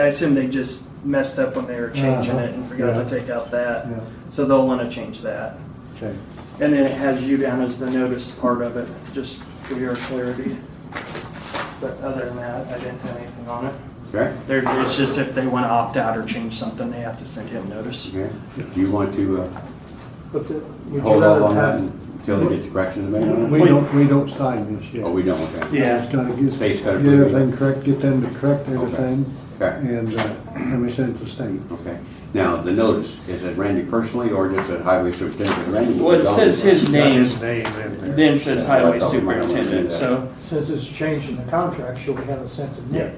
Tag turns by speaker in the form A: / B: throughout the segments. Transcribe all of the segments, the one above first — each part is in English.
A: I assume they just messed up when they were changing it and forgot
B: Uh-huh. Yeah.
A: to take out that.
B: Yeah,
A: So they'll wanna change that.
B: okay.
A: And then it has you down as the notice part of it, just for your clarity. But other than that, I didn't have anything on it.
C: Okay,
A: There, it's just if they wanna opt out or change something, they have to send him notice.
C: okay. Do you want to uh,
D: But the- would you
C: hold off
D: rather
C: on that
D: have,
C: until they get the corrections made on it?
B: We don't, we don't sign this yet.
C: Oh, we don't, okay.
A: Yeah.
B: I was gonna get,
C: State's
B: get
C: gotta approve it.
B: everything correct, get them to correct everything,
C: Okay,
B: and, uh, and we send it to state.
C: okay. Now, the notice, is it Randy personally or just a highway superintendent? Randy will be
A: Well, it
C: gone.
A: says his name,
E: name in there.
A: then says highway superintendent, so.
D: since it's changed in the contract, should we have it sent to Nick?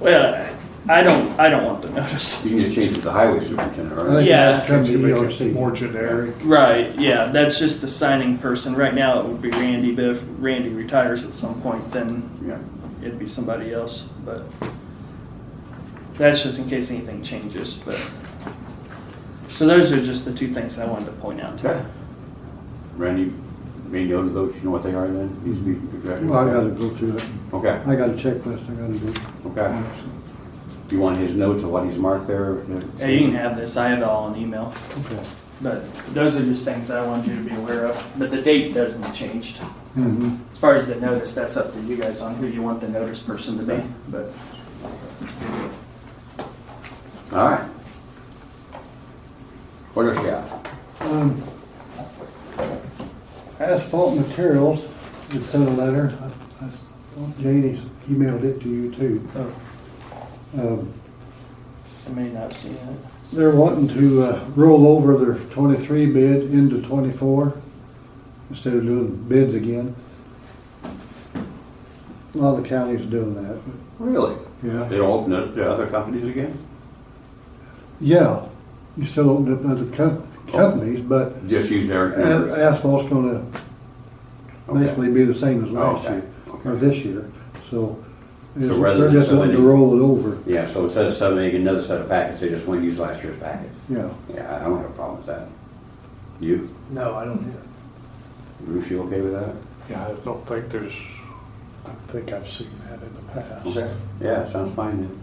A: Well, I don't, I don't want the notice.
C: You can just change it to the highway superintendent,
B: I
C: right?
B: think
A: Yeah.
B: that's E come to
E: Could you make it
B: ERC.
E: More generic.
A: Right, yeah, that's just the signing person. Right now, it would be Randy, but if Randy retires at some point, then
C: Yeah.
A: it'd be somebody else, but that's just in case anything changes, but. So those are just the two things I wanted to point out to
C: Okay. Randy, may know those, you know what they are then? Needs to be corrected.
B: Well, I gotta go through it.
C: Okay,
B: I got a checklist I gotta do.
C: okay. Do you want his notes or what he's marked there?
A: you. Hey, you can have this, I have it all in email,
B: Okay.
A: but those are just things I wanted you to be aware of, but the date doesn't change.
B: Mm-hmm.
A: As far as the notice, that's up to you guys on who you want the notice person to be, but.
C: All right. What else you got?
B: Um, Asphalt materials, it sent a letter, I, I, Janie's emailed it to you too.
A: Oh,
B: Um,
A: I may not see it.
B: They're wanting to uh, roll over their twenty-three bid into twenty-four instead of doing bids again. A lot of the counties doing that,
C: Really?
B: yeah.
C: They don't open it to other companies again?
B: Yeah, you still open up other com- companies, but
C: Just use their
B: a-
C: numbers?
B: asphalt's gonna
C: Okay.
B: basically be the same as
C: Oh,
B: last
C: okay,
B: year, or
C: okay.
B: this year, so. it's-
C: rather
B: They're
C: than
B: just wanting to
C: somebody-
B: roll it over,
C: Yeah, so instead of sending another set of packets, they just want to use last year's packet.
B: yeah.
C: Yeah, I don't have a problem with that. You,
D: No, I don't either.
C: Bruce, you okay with that?
E: Yeah, I don't think there's, I think I've seen that in the past.
C: Yeah, sounds fine then.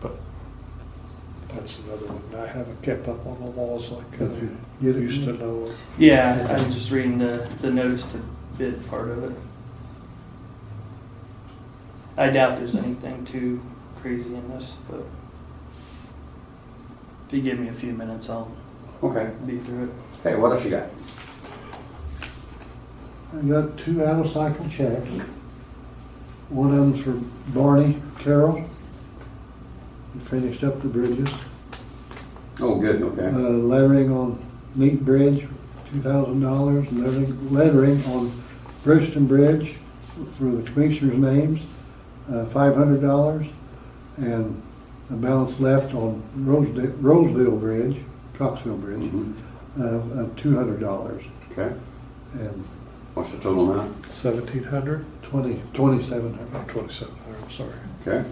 E: But that's another one. I haven't kept up on the laws like
B: If you
E: I
B: get it-
E: used to know.
A: Yeah, I'm just reading the, the notice to bid part of it. I doubt there's anything too crazy in this, but if you give me a few minutes, I'll
C: Okay.
A: be through it.
C: Hey, what else you got?
B: I got two out-of-cycle checks. One of them's for Barney Carroll. He finished up the bridges.
C: Oh, good,
B: Uh,
C: okay.
B: lettering on Neat Bridge, two thousand dollars. Lettering, lettering on Brewston Bridge for the commissioners' names, uh, five hundred dollars. And a balance left on Rosedale, Roseville Bridge, Coxville Bridge,
C: Mhm.
B: uh, of two hundred dollars.
C: Okay.
B: And
C: What's the total amount?
E: Seventeen hundred?
B: twenty, twenty-seven hundred.
E: Not twenty-seven hundred, I'm sorry.
C: Okay.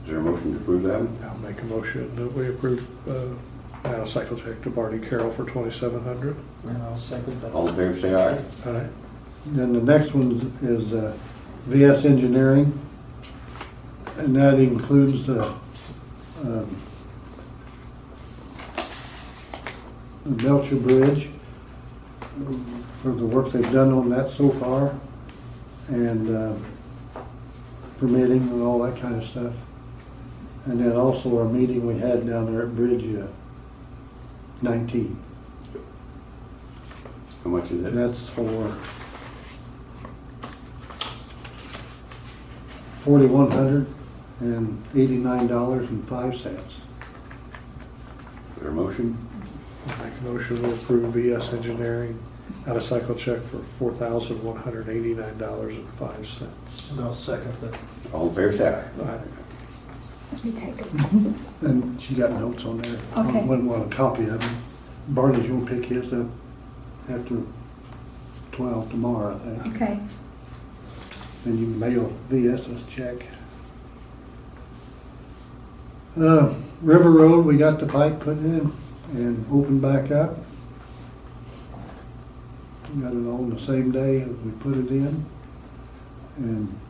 C: Is there a motion to approve that? one?
E: I'll make a motion that we approve, uh, now cycle check to Barney Carroll for twenty-seven hundred.
D: And I'll second that.
C: All in favor, say aye.
E: All right.
B: Then the next one is uh, VS Engineering, and that includes uh, um, the Belcher Bridge um, for the work they've done on that so far, and um, permitting and all that kind of stuff. And then also our meeting we had down there at Bridge uh, 19.
C: How much is
B: And
C: it?
B: that's for forty-one hundred and eighty-nine dollars and five cents.
C: Is there a motion?
E: I'll make a motion to approve VS Engineering out of cycle check for four thousand one hundred eighty-nine dollars and five cents.
D: And I'll second that.
C: All in favor, say aye.
F: You take it.
B: And she got notes on there.
F: Okay.
B: Wouldn't want a copy of them. Barney's gonna pick his up after twelve tomorrow, I think.
F: Okay.
B: Then you can mail VS's check. Uh, River Road, we got the pipe put in and opened back up. Got it on the same day as we put it in. And